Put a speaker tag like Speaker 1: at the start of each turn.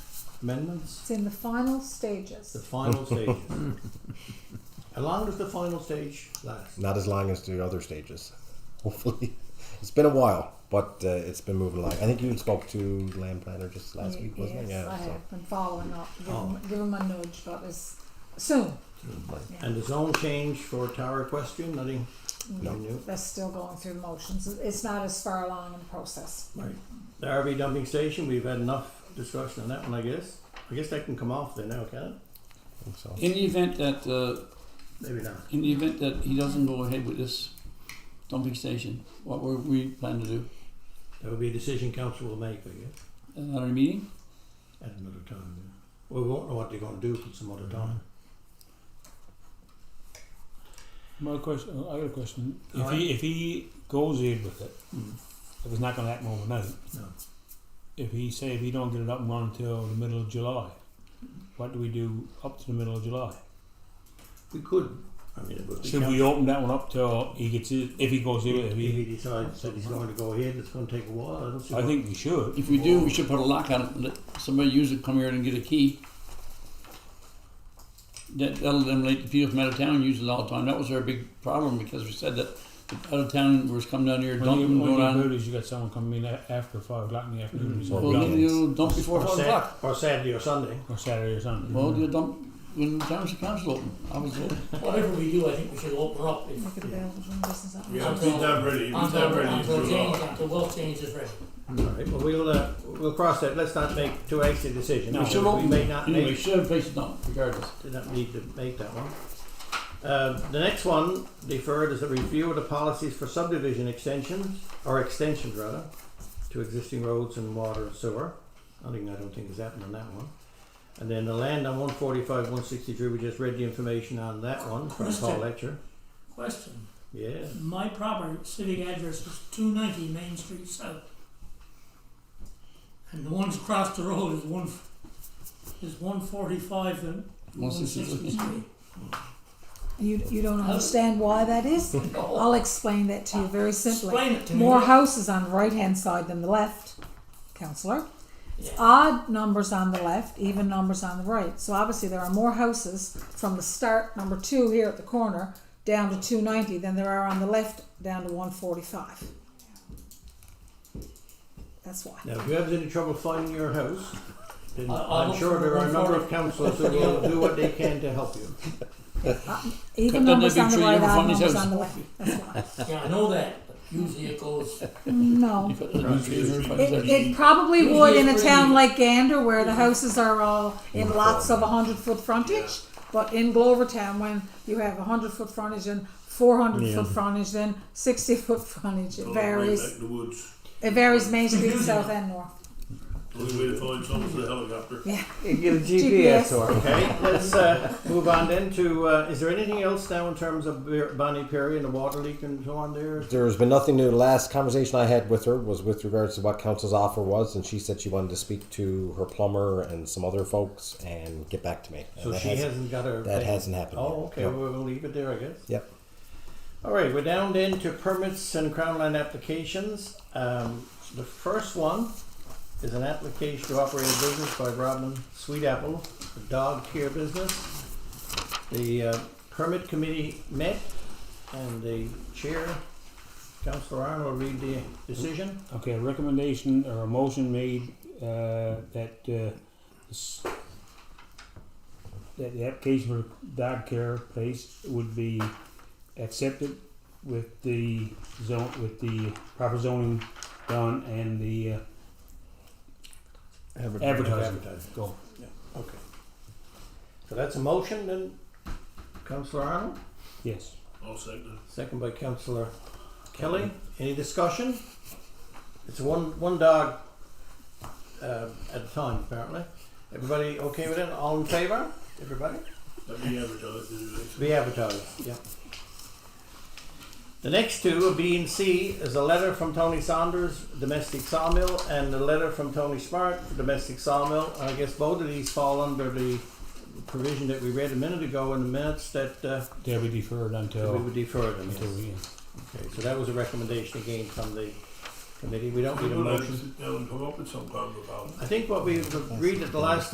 Speaker 1: amendments?
Speaker 2: It's in the final
Speaker 1: The
Speaker 2: stages.
Speaker 1: final stage. How long does the final stage last?
Speaker 3: Not as long as the other stages. Hopefully, it's been a while, but uh, it's been moving along. I think you spoke to Land Planner just last
Speaker 2: Y-
Speaker 3: week, wasn't
Speaker 2: yes,
Speaker 3: it?
Speaker 2: I
Speaker 3: Yeah. So.
Speaker 2: have been following up. Give,
Speaker 1: Oh.
Speaker 2: him, give him a nudge, but it's soon. Yeah.
Speaker 1: And the zone change for tower equestrian, nothing
Speaker 3: No.
Speaker 1: new?
Speaker 2: They're still going through the motions. It's not as far along in the process.
Speaker 1: Right. The RV dumping station, we've had enough discussion on that one, I guess. I guess that can come off there now, can
Speaker 3: I think so.
Speaker 4: In the event that uh,
Speaker 1: it? Maybe not.
Speaker 4: in the event that he doesn't go ahead with this dumping station, what were we planning to do
Speaker 1: That would be a decision council will make, I guess,
Speaker 4: at another meeting?
Speaker 1: at another time. yeah. Well, we won't know what they're gonna do at some other time.
Speaker 5: My question, I got a question. If
Speaker 1: Alright.
Speaker 5: he if he goes in with Hmm. it,
Speaker 1: Mm.
Speaker 5: if it's not going to happen overnight,
Speaker 1: No.
Speaker 5: if he say if he don't get it up and running until the middle of July, what do we do up to the middle of July?
Speaker 1: We could, I mean, it would be.
Speaker 5: Should we open that one up till he gets it? If he goes in,
Speaker 1: If
Speaker 5: if he,
Speaker 1: he decides that he's going to go ahead, it's gonna take a while, I don't see.
Speaker 5: I
Speaker 1: why-
Speaker 5: think we should.
Speaker 4: If we do, we should put a lock on it. And let somebody use it. Come here and get a key. That, that'll eliminate the people from out of town use it all the time. That was our big problem because we said that the out of town was coming down here
Speaker 5: When you,
Speaker 4: dumping
Speaker 5: when
Speaker 4: going
Speaker 5: you
Speaker 4: on.
Speaker 5: heard is you got someone coming in a- after five o'clock in the afternoon.
Speaker 1: Mhm.
Speaker 5: so
Speaker 4: Well,
Speaker 5: dump-
Speaker 4: then you'll dump before
Speaker 1: Or
Speaker 4: five
Speaker 1: Sat-
Speaker 4: o'clock.
Speaker 1: Or Saturday or Sunday.
Speaker 5: or Saturday or Sunday.
Speaker 4: Well, you dump when the township council open. I was there.
Speaker 6: Whatever we do, I think we should open up. If,
Speaker 2: Look at the
Speaker 1: Yeah.
Speaker 2: Belgian business. up
Speaker 7: Yeah,
Speaker 2: there.
Speaker 7: we've done really, we've done
Speaker 6: until,
Speaker 7: really
Speaker 6: until
Speaker 7: improved
Speaker 6: change,
Speaker 7: on
Speaker 6: until wealth change is ready.
Speaker 1: All right, well, we'll, uh, we'll cross that, let's not make too hasty a decision.
Speaker 4: we should open.
Speaker 1: We may not
Speaker 4: anyway, we
Speaker 1: make,
Speaker 4: should have placed it down regardless.
Speaker 1: did not need to make that one. Uh, the next one deferred is a review of the policies for subdivision extensions, or extensions rather, to existing roads and water and sewer. I think, I don't think has happened on that one. And then the land on one forty-five, one sixty-three, we just read the information on that one from Paul
Speaker 6: Question.
Speaker 1: Letcher.
Speaker 6: Question,
Speaker 1: Yeah,
Speaker 6: my proper civic address is two ninety Main Street South. And the ones across the road is one, is one forty-five and one
Speaker 4: 163.
Speaker 6: sixty-three.
Speaker 2: You, you don't understand why that is? I'll explain that to you very simply.
Speaker 6: Oh, Explain it to me.
Speaker 2: More houses on the right hand side than the left, councillor. It's
Speaker 6: Yeah.
Speaker 2: odd numbers on the left, even numbers on the right. So obviously there are more houses from the start, number two here at the corner, down to two ninety than there are on the left down to one forty five. That's why.
Speaker 1: now if you have any trouble finding your house, then
Speaker 6: I- I'll
Speaker 1: I'm
Speaker 6: look
Speaker 1: sure
Speaker 6: for
Speaker 1: there are a number of
Speaker 6: 140.
Speaker 1: councillors who will do what they can to help you.
Speaker 2: Even
Speaker 4: Cut down
Speaker 2: numbers
Speaker 4: that big
Speaker 2: on the right,
Speaker 4: tree, never
Speaker 2: odd
Speaker 4: found
Speaker 2: numbers
Speaker 4: his house.
Speaker 2: on the left. That's why.
Speaker 6: Yeah, I know that, but usually it goes,
Speaker 2: No.
Speaker 4: If it- if it-
Speaker 2: It, it probably would in a town like Gander where the houses are all in lots of 100 foot frontage. But in Glovertown, when you have 100 foot frontage and 400 foot frontage, then 60 foot frontage,
Speaker 7: it.
Speaker 2: it
Speaker 7: All The way back
Speaker 2: varies.
Speaker 7: in the woods,
Speaker 2: It varies Main Street, South and North.
Speaker 7: only way to find someone is the helicopter.
Speaker 8: Get a
Speaker 2: GPS.
Speaker 8: GPS, or
Speaker 1: Okay, let's uh, move on then to, uh, is there anything else now in terms of Bir- Bonnie Perry and the water leak and so on there?
Speaker 3: There's been nothing new. The last conversation I had with her was with regards to what council's offer was, and she said she wanted to speak to her plumber and some other folks and get back to me. And
Speaker 1: So
Speaker 3: that
Speaker 1: she
Speaker 3: hasn't-
Speaker 1: hasn't got her.
Speaker 3: that
Speaker 1: thing.
Speaker 3: hasn't happened
Speaker 1: Oh,
Speaker 3: yet.
Speaker 1: okay,
Speaker 3: No.
Speaker 1: well, we'll leave it there, I guess.
Speaker 3: Yep.
Speaker 1: All right, we're down then to permits and crown land applications. Um, the first one is an application to operate a business by Robin Sweetapple, a dog care business. The uh, permit committee met, and the chair, Councillor Arnold, will read the decision.
Speaker 5: Okay, a recommendation or a motion made uh, that uh, s- that the application for dog care place would be accepted with the zone with the proper zoning done and the uh, Advertising.
Speaker 1: Advertising.
Speaker 5: go.
Speaker 1: Okay. So that's a motion then, Councillor Arnold,
Speaker 5: Yes.
Speaker 7: I'll second
Speaker 1: second by Councillor Kelly. Any discussion? It's one, one dog, uh, at a time apparently. Everybody okay with it? All in favour? Everybody?
Speaker 7: it. That'd be advertised anyway.
Speaker 1: To be advertised, yeah. The next two, a B and C, is a letter from Tony Saunders, domestic sawmill, and a letter from Tony Smart, domestic sawmill. And I guess both of these fall under the provision that we read a minute ago in the minutes that, uh,
Speaker 5: They'll be deferred
Speaker 1: that
Speaker 5: until
Speaker 1: we would defer them.
Speaker 5: until we
Speaker 1: Okay, so that was a recommendation again from the committee. We don't need a
Speaker 7: We'll have to
Speaker 1: motion.
Speaker 7: sit down and come up with some kind of a
Speaker 1: I think what we agreed at the last